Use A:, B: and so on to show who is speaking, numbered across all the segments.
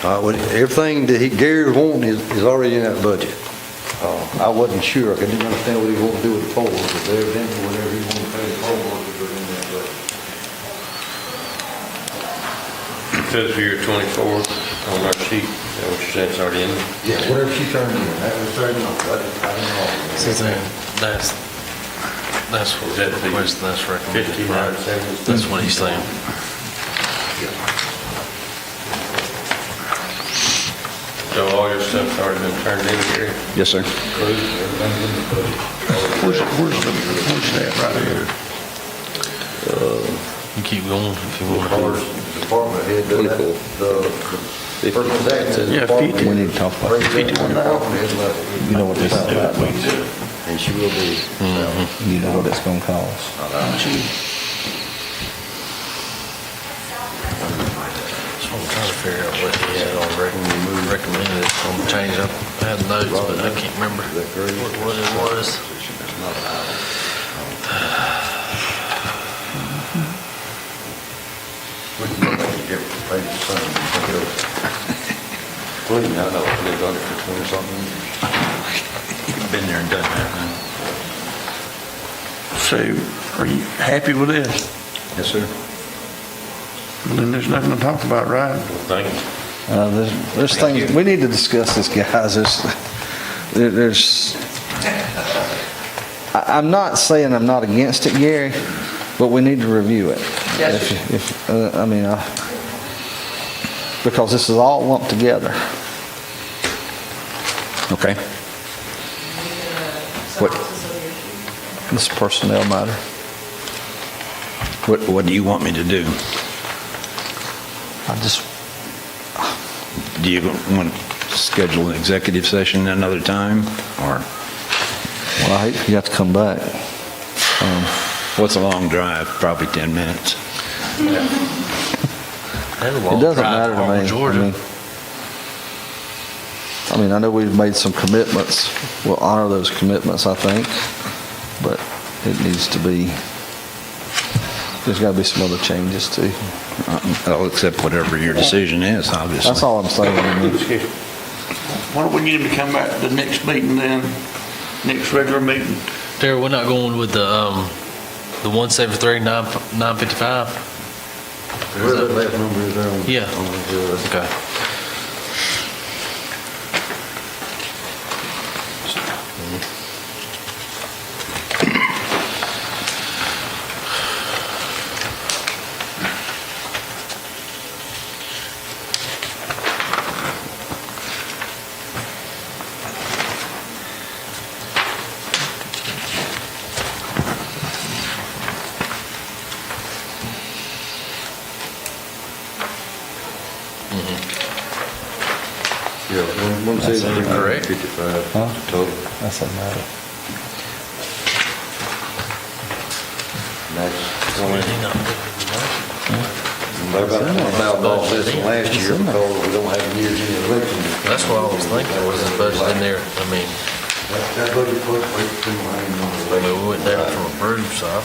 A: Uh, well, everything that he, Gary's wanting is, is already in that budget. Uh, I wasn't sure, I didn't understand what he wanted to do with the poles, but there, then, whatever he wanted to pay the poll workers are in that budget.
B: It says here 24 on our sheet, that what you said is already in there.
A: Yeah, whatever she turned in, that was turned in, I didn't, I didn't know.
C: So then, that's, that's what the request, that's recommended.
B: Fifteen
C: right?
B: hundred seventy.
C: That's what he's saying.
B: So all your stuff's already been turned in here,
D: Yes, sir.
B: including everything in the budget.
E: Where's, where's the, where's that right here?
C: You keep going if you
A: As
C: want.
A: far as department head, the,
D: Twenty-four.
A: the, the
D: Fifty.
A: person's acting.
E: Yeah, fifty.
D: We need to talk about
A: Raise that one thousand his level.
D: You know what this is about, don't
A: And she will be.
D: You know what it's gonna cost.
C: So I'm trying to figure out what he had on recommend, recommended, it's gonna change up, I had notes, but I can't remember what what it was.
A: We can make it different, pay the same, but it'll- Clean, I know, they've done it for twenty something years.
C: Been there and done that.
E: So are you happy with this?
A: Yes, sir.
E: Then there's nothing to talk about, right?
B: Thank you.
D: Uh, there's, there's things, we need to discuss this, guys, there's, there- there's, I, I'm not saying I'm not against it, Gary, but we need to review it.
F: Yes,
D: If- If, uh, I mean, uh, because this is all lumped together. Okay. What? This personnel matter.
G: What, what do you want me to do?
D: I just,
G: Do you want to schedule an executive session another time, or
D: well, I hate you have to come back.
G: what's a long drive, probably 10 minutes?
C: Had a
D: It
C: long
D: doesn't
C: drive
D: matter to me. I
C: Auburn, Georgia.
D: mean- I mean, I know we've made some commitments. We'll honor those commitments, I think, but it needs to be, there's got to be some other changes too.
G: I'll accept whatever your decision is, obviously.
D: That's all I'm saying. I mean,
E: Why don't we get him to come back to the next meeting then, next regular meeting?
C: Darryl, we're not going with the, um, the one seventy-three, nine, nine fifty-five?
A: Where that last number is on.
C: Yeah.
A: on the, uh,
C: Okay.
A: Yeah, one, one seventy-three,
C: Correct.
A: fifty-five
D: Huh?
A: total.
D: That's a matter.
A: And that's
C: Did
A: twenty,
C: he not put it in the budget?
A: about, about much less than last year because we don't have years in the election.
C: That's what I was thinking, was the budget in there, I mean,
A: That that budget fluctuates too much in the
C: I
A: election.
C: mean, we went down from approved, so. I-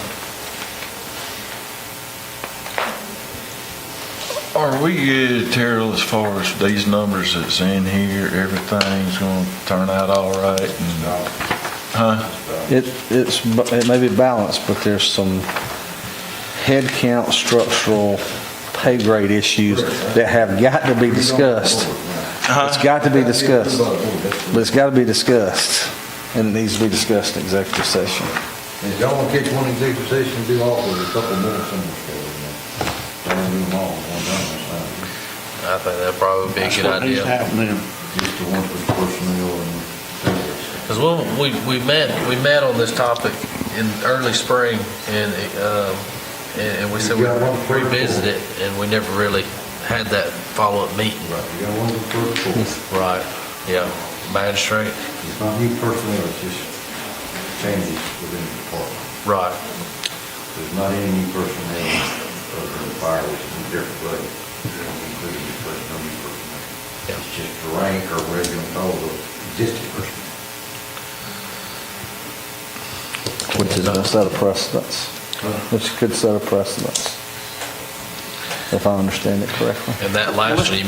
H: Are we good, Terrell, as far as these numbers that's in here, everything's gonna turn out all right and, huh?
D: It, it's, bu- it may be balanced, but there's some head count, structural, pay grade issues that have got to be discussed. It's got to be discussed, but it's got to be discussed, and it needs to be discussed in executive session.
A: If y'all want to catch one executive session, do all of it, a couple more somewhere. so, uh, Don't do them all, at one time, that's fine.
C: I think that'd probably be a good idea.
A: Just the ones with personnel and.
C: Because we, we met, we met on this topic in early spring, and, um, and and we said we
A: You got one for-
C: revisit it, and we never really had that follow-up meeting.
A: Right, you got one with personnel,
C: Right. Yeah, magistrate,
A: it's not new personnel, it's just changes within the department.
C: right.
A: There's not any new personnel other than the fire, which is a different budget, including the first no new personnel.
C: Yeah.
A: It's just the rank or whatever you want to call the existing personnel.
D: Which is going to set a precedence, which could set a precedence.
I: if I understand it correctly.
D: And that last one, you